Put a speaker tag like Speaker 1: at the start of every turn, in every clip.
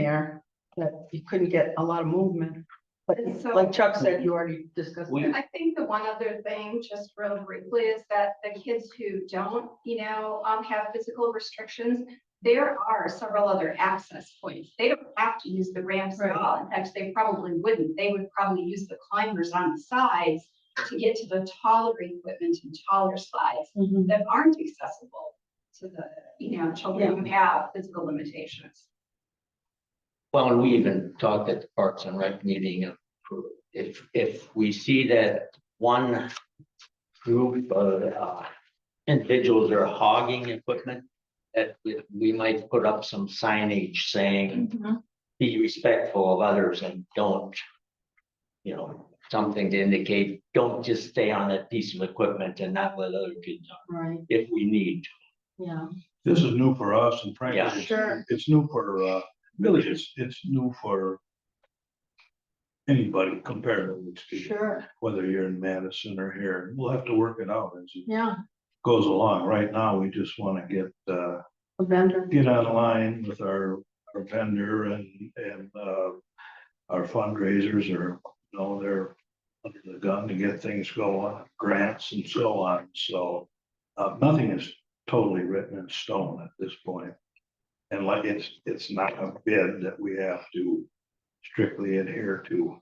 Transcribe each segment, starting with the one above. Speaker 1: there, that you couldn't get a lot of movement. But
Speaker 2: And so-
Speaker 1: like Chuck said, you already discussed
Speaker 3: We-
Speaker 1: that.
Speaker 2: I think the one other thing, just real briefly, is that the kids who don't, you know, um, have physical restrictions, there are several other access points. They don't have to use the ramps at
Speaker 1: Right.
Speaker 2: all. In fact, they probably wouldn't. They would probably use the climbers on the sides to get to the taller equipment and taller slides
Speaker 1: Mm-hmm.
Speaker 2: that aren't accessible to the, you know, children who have physical limitations.
Speaker 3: Well, and we even talked at the Parks and Rec meeting, of if, if we see that one group of uh, individuals are hogging equipment, that we, we might put up some signage saying, be respectful of others and don't, you know, something to indicate, don't just stay on that piece of equipment and not let other kids, on,
Speaker 1: Right,
Speaker 3: if we need.
Speaker 1: yeah.
Speaker 4: This is new for us and frankly,
Speaker 3: Yeah.
Speaker 4: it's-
Speaker 1: Sure.
Speaker 4: it's new for, uh, really, it's, it's new for anybody comparatively speaking,
Speaker 1: Sure,
Speaker 4: whether you're in Madison or here, we'll have to work it out as it
Speaker 1: yeah,
Speaker 4: goes along. Right now, we just want to get, uh,
Speaker 1: a vendor.
Speaker 4: get online with our, our vendor and, and, uh, our fundraisers are, you know, they're under the gun to get things going, grants and so on, so. Uh, nothing is totally written in stone at this point. And like, it's, it's not a bid that we have to strictly adhere to.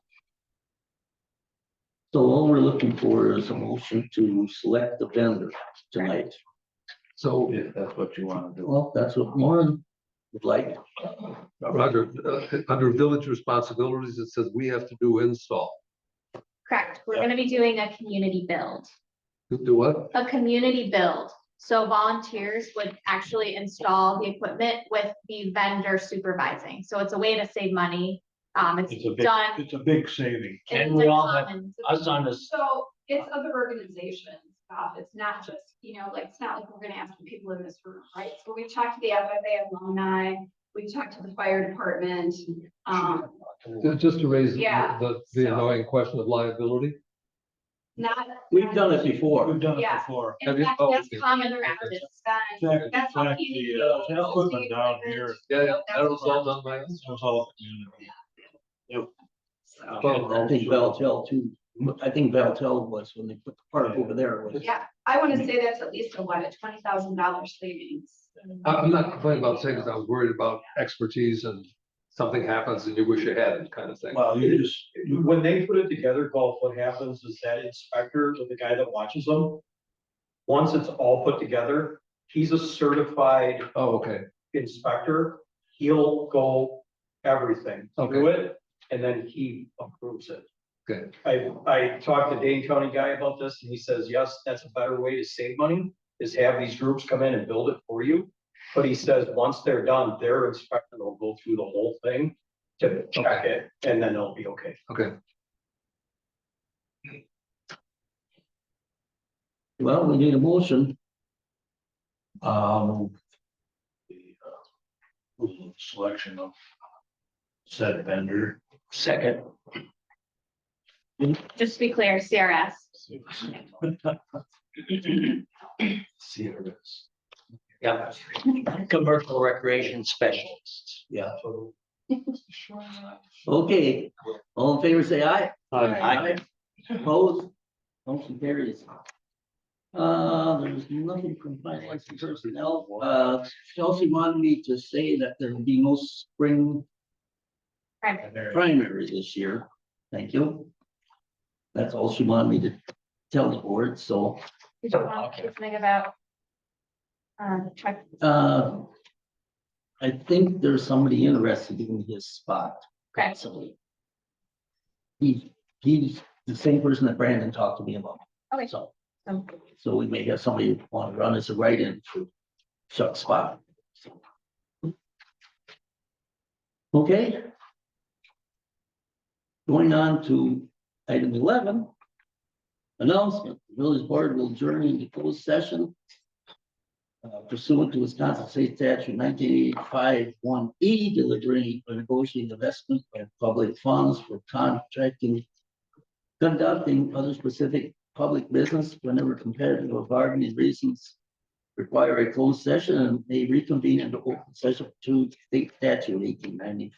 Speaker 5: So all we're looking for is a motion to select the vendor tonight. So,
Speaker 4: If that's what you want to do.
Speaker 5: well, that's what Lauren would like.
Speaker 6: Roger, uh, under village responsibilities, it says we have to do install.
Speaker 7: Correct, we're
Speaker 4: Yeah.
Speaker 7: gonna be doing a community build,
Speaker 6: Do- Do what?
Speaker 7: a community build. So volunteers would actually install the equipment with the vendor supervising, so it's a way to save money. Um, it's
Speaker 4: It's a big,
Speaker 7: done.
Speaker 4: it's a big saving.
Speaker 7: it's
Speaker 3: And we
Speaker 7: a
Speaker 3: all have
Speaker 7: common-
Speaker 3: Us on this,
Speaker 2: So it's other organizations, Bob. It's not just, you know, like, it's not like we're gonna ask the people in this room, right? So we've talked to the FFA alumni, we've talked to the fire department. Um,
Speaker 6: Ju- Just to raise the-
Speaker 2: Yeah,
Speaker 6: the, the
Speaker 2: so-
Speaker 6: annoying question of liability.
Speaker 2: not.
Speaker 5: We've done it before.
Speaker 4: We've done it
Speaker 2: Yeah.
Speaker 4: before.
Speaker 2: In
Speaker 6: Have you-
Speaker 2: fact,
Speaker 6: oh,
Speaker 2: that's
Speaker 6: okay.
Speaker 2: common practice. Then
Speaker 4: Exactly,
Speaker 2: That's how
Speaker 4: exactly,
Speaker 2: community
Speaker 4: uh,
Speaker 2: builds,
Speaker 4: equipment
Speaker 2: it's
Speaker 4: down
Speaker 2: the
Speaker 4: here.
Speaker 6: Yeah, yeah, that
Speaker 2: That's
Speaker 6: was all done by
Speaker 4: This
Speaker 6: us.
Speaker 4: was all community.
Speaker 2: so,
Speaker 5: I think Valtel too, I think Valtel was when they put the park over there. it was-
Speaker 2: Yeah, I wanna say that's at least a what, a twenty thousand dollar savings.
Speaker 6: I- Uh, I'm not complaining about saying that I was worried about expertise and something happens and you wish you hadn't kind of thing.
Speaker 4: Well, you just, you
Speaker 8: when they put it together, Golf, what happens is that inspector, or the guy that watches them, once it's all put together, he's a certified
Speaker 6: Oh, okay.
Speaker 8: inspector. He'll go everything through it, and then he approves it.
Speaker 6: Good.
Speaker 8: I, I talked to Dane County guy about this, and he says, yes, that's a better way to save money, is have these groups come in and build it for you. But he says, once they're done, their inspector will go through the whole thing to check it, and then it'll be okay.
Speaker 5: Well, we need a motion.
Speaker 4: Um. the, uh, rule of Selection of said vendor.
Speaker 3: second,
Speaker 7: Just to be clear, CRS,
Speaker 4: CRS.
Speaker 3: yeah, commercial recreation specialists.
Speaker 5: Yeah. Okay, all in favor, say aye.
Speaker 3: Aye.
Speaker 5: Opposed? Motion carries. Uh, there's nothing from finance and personnel. Uh, Chelsea wanted me to say that there will be no spring
Speaker 7: right,
Speaker 5: primary this year. Thank you. That's all she wanted me to tell the board, so,
Speaker 7: did you want to
Speaker 3: Oh, Okay.
Speaker 7: say something about? Um, truck,
Speaker 5: uh. I think there's somebody interested in his spot.
Speaker 7: correct,
Speaker 5: possibly. He, he's the same person that Brandon talked to me about.
Speaker 7: Okay.
Speaker 5: So,
Speaker 7: so
Speaker 5: so we may have somebody want to run as a write-in for Chuck's spot. Okay. Going on to item eleven. Announcement, The village board will adjourn into closed session. uh, Pursuant to Wisconsin State Statute nineteen eighty-five one E, delivering or negotiating investment of public funds for contracting. Conducting other specific public business whenever competitive or bargaining reasons. Require a closed session and may reconvene into open session to state statute eighteen ninety-five.